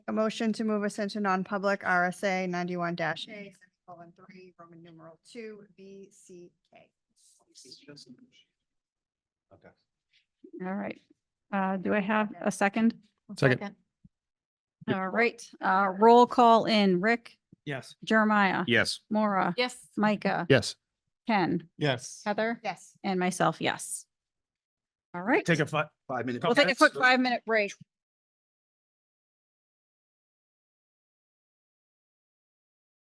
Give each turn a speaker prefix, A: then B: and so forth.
A: A motion to move us into non-public RSA ninety-one dash A, colon three, Roman numeral two, B, C, K.
B: Okay.
C: All right. Uh, do I have a second?
D: Second. Yep.
C: All right, uh, roll call in. Rick,
B: Yes.
C: Jeremiah,
D: Yes.
C: Maura,
E: Yes.
C: Micah,
D: Yes.
C: Ken,
B: Yes.
C: Heather,
A: Yes.
C: and myself, yes. All right,
B: Take a fi- Five minutes.
C: we'll take a quick five-minute break.